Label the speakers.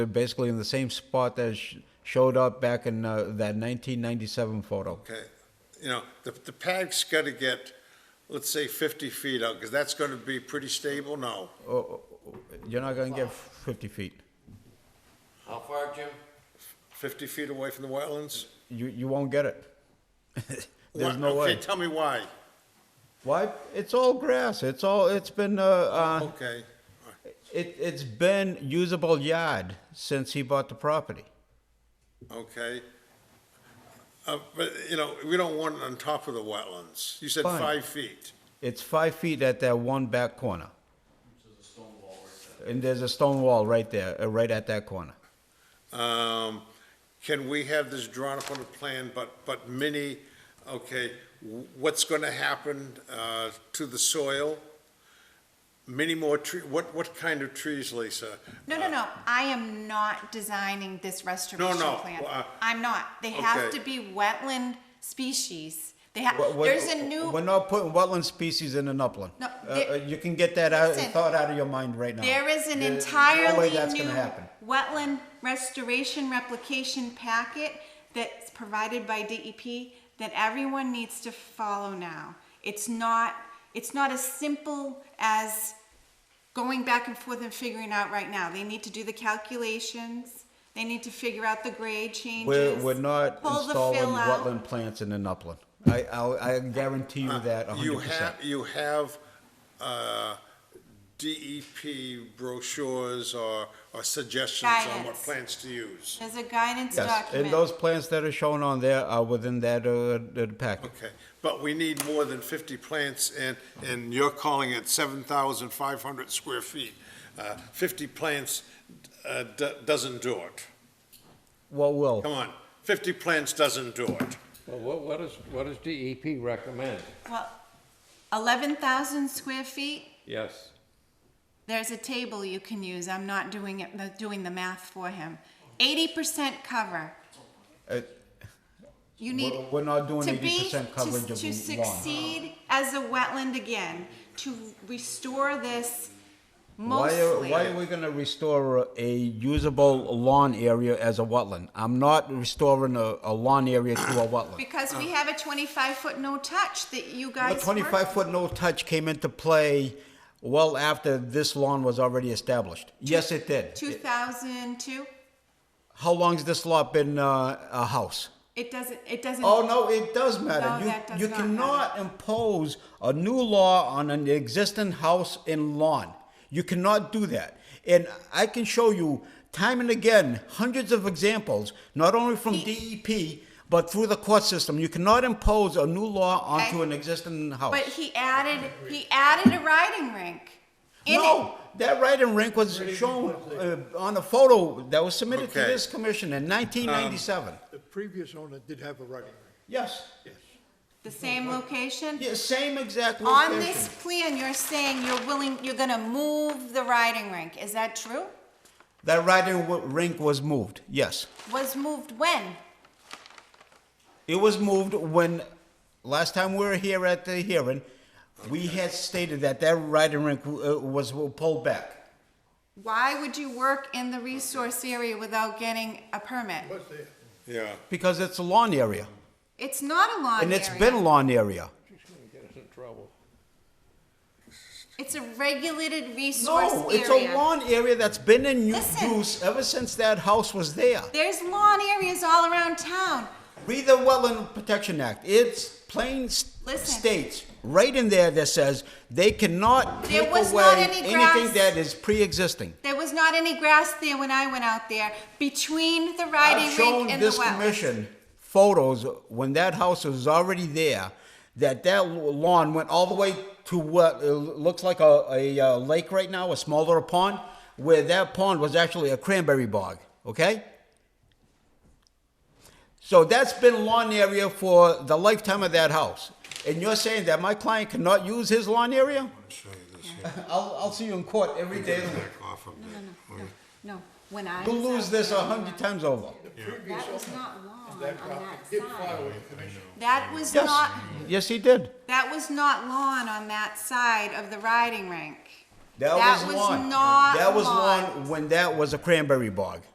Speaker 1: They're basically in the same spot that sh- showed up back in uh, that 1997 photo.
Speaker 2: Okay, you know, the, the pad's got to get, let's say 50 feet out, because that's going to be pretty stable now.
Speaker 1: You're not gonna get 50 feet.
Speaker 3: How far, Jim?
Speaker 2: 50 feet away from the wetlands?
Speaker 1: You, you won't get it. There's
Speaker 2: Why-
Speaker 1: no way.
Speaker 2: Okay, tell me why.
Speaker 1: Why? It's all grass. It's all, it's been, uh, uh,
Speaker 2: Okay,
Speaker 1: it, it's been usable yard since he bought the property.
Speaker 2: okay. Uh, But, you know, we don't want it on top of the wetlands. You said
Speaker 1: Fine.
Speaker 2: five feet.
Speaker 1: It's five feet at that one back corner. And there's a stone wall right there, uh, right at that corner.
Speaker 2: Um, Can we have this drawn up on a plan, but, but mini, okay, w- what's going to happen uh, to the soil? Many more tree, what, what kind of trees, Lisa?
Speaker 4: No, no, no, I am not designing this restoration
Speaker 2: no,
Speaker 4: plan.
Speaker 2: well, uh,
Speaker 4: I'm not. They have
Speaker 2: okay.
Speaker 4: to be wetland species. They have,
Speaker 1: What- what-
Speaker 4: there's a new,
Speaker 1: We're not putting wetland species in an upland.
Speaker 4: No,
Speaker 1: Uh,
Speaker 4: there-
Speaker 1: uh, you can get that out,
Speaker 4: Listen.
Speaker 1: thought out of your mind right now.
Speaker 4: there is an
Speaker 1: There's no way
Speaker 4: entirely
Speaker 1: that's
Speaker 4: new
Speaker 1: gonna happen.
Speaker 4: wetland restoration replication packet that's provided by DEP that everyone needs to follow now. It's not, it's not as simple as going back and forth and figuring out right now. They need to do the calculations. They need to figure out the grade changes.
Speaker 1: We're, we're not
Speaker 4: pull the
Speaker 1: installing
Speaker 4: fill out.
Speaker 1: wetland plants in an upland. I, I'll, I guarantee you that
Speaker 2: Uh, You
Speaker 1: hundred percent.
Speaker 2: have, you have uh, DEP brochures or, or suggestions on what
Speaker 4: Guidance.
Speaker 2: plants to use.
Speaker 4: There's a guidance
Speaker 1: Yes,
Speaker 4: document.
Speaker 1: and those plants that are shown on there are within that, uh, the packet.
Speaker 2: Okay, but we need more than 50 plants, and, and you're calling it 7,500 square feet. Uh, 50 plants uh, do- doesn't do it.
Speaker 1: Well, Will,
Speaker 2: Come on, 50 plants doesn't do it.
Speaker 3: Well, what, what is, what does DEP recommend?
Speaker 4: Well, eleven thousand square feet,
Speaker 3: Yes.
Speaker 4: there's a table you can use. I'm not doing it, the- doing the math for him. Eighty percent cover.
Speaker 1: Uh,
Speaker 4: You need.
Speaker 1: we're, we're not doing
Speaker 4: To be,
Speaker 1: eighty
Speaker 4: to,
Speaker 1: percent coverage of
Speaker 4: to
Speaker 1: lawn.
Speaker 4: succeed as a wetland again, to restore this
Speaker 1: Why are,
Speaker 4: mostly.
Speaker 1: why are we gonna restore a usable lawn area as a wetland? I'm not restoring a, a lawn area to a wetland.
Speaker 4: Because we have a twenty-five foot no touch that you
Speaker 1: The
Speaker 4: guys.
Speaker 1: twenty-five foot
Speaker 4: worked-
Speaker 1: no touch came into play well after this lawn was already established. Yes, it did.
Speaker 4: Two thousand two,
Speaker 1: How long's this lot been, uh, a house?
Speaker 4: it doesn't, it doesn't.
Speaker 1: Oh, no, it does matter.
Speaker 4: No,
Speaker 1: You-
Speaker 4: that does
Speaker 1: You
Speaker 4: not
Speaker 1: cannot impose a new law on an existing house and lawn. You cannot do that. And I can show you time and again, hundreds of examples, not only from DEP, but through the court system. You cannot impose a new law onto
Speaker 4: Okay.
Speaker 1: an existing house.
Speaker 4: But he added, he added a riding rink. in it.
Speaker 1: No, that riding rink was Um, shown uh, on a photo that was submitted to
Speaker 2: Okay.
Speaker 1: this commission in 1997.
Speaker 5: The previous owner did have a writing ring.
Speaker 1: Yes,
Speaker 4: The same location?
Speaker 1: Yeah, same exact
Speaker 4: On
Speaker 1: location.
Speaker 4: this plan, you're saying you're willing, you're gonna move the riding rink, is that true?
Speaker 1: That riding w- rink was moved, yes.
Speaker 4: Was moved when?
Speaker 1: It was moved when, last time we were here at the hearing, we had stated that that riding rink uh, was pulled back.
Speaker 4: Why would you work in the resource area without getting a permit?
Speaker 5: Was there?
Speaker 2: Yeah.
Speaker 1: Because it's a lawn area,
Speaker 4: It's not a lawn
Speaker 1: and it's
Speaker 4: area.
Speaker 1: been a lawn area.
Speaker 3: She's gonna get us in trouble.
Speaker 4: It's a regulated resource
Speaker 1: No, it's a
Speaker 4: area.
Speaker 1: lawn area that's been in u-
Speaker 4: Listen.
Speaker 1: use ever since that house was there.
Speaker 4: There's lawn areas all around town.
Speaker 1: Read the Wetland Protection Act. It's plain s-
Speaker 4: Listen.
Speaker 1: states right in there that says they cannot
Speaker 4: There
Speaker 1: take
Speaker 4: was
Speaker 1: away
Speaker 4: not any
Speaker 1: anything
Speaker 4: grass.
Speaker 1: that is pre-existing.
Speaker 4: There was not any grass there when I went out there, between the riding
Speaker 1: I've shown
Speaker 4: rink and the
Speaker 1: this
Speaker 4: wetlands.
Speaker 1: commission photos when that house was already there, that that lawn went all the way to what uh, looks like a, a uh, lake right now, a small little pond, where that pond was actually a cranberry bog, okay? So that's been lawn area for the lifetime of that house. And you're saying that my client cannot use his lawn area?
Speaker 2: Show you this
Speaker 1: I'll, I'll see you in court every day.
Speaker 2: off of it.
Speaker 4: No, when I
Speaker 1: You'll
Speaker 4: was
Speaker 1: lose
Speaker 4: out
Speaker 1: this a
Speaker 4: there,
Speaker 1: hundred times over.
Speaker 4: That was not lawn on
Speaker 5: That property
Speaker 4: that
Speaker 5: did
Speaker 4: side.
Speaker 5: file with the commission.
Speaker 4: That was
Speaker 1: Yes,
Speaker 4: not,
Speaker 1: yes, he did.
Speaker 4: that was not lawn on that side of the riding rink.
Speaker 1: That,
Speaker 4: That
Speaker 1: was,
Speaker 4: was
Speaker 1: lawn.
Speaker 4: not
Speaker 1: That was
Speaker 4: lawn.
Speaker 1: lawn when that was a cranberry bog.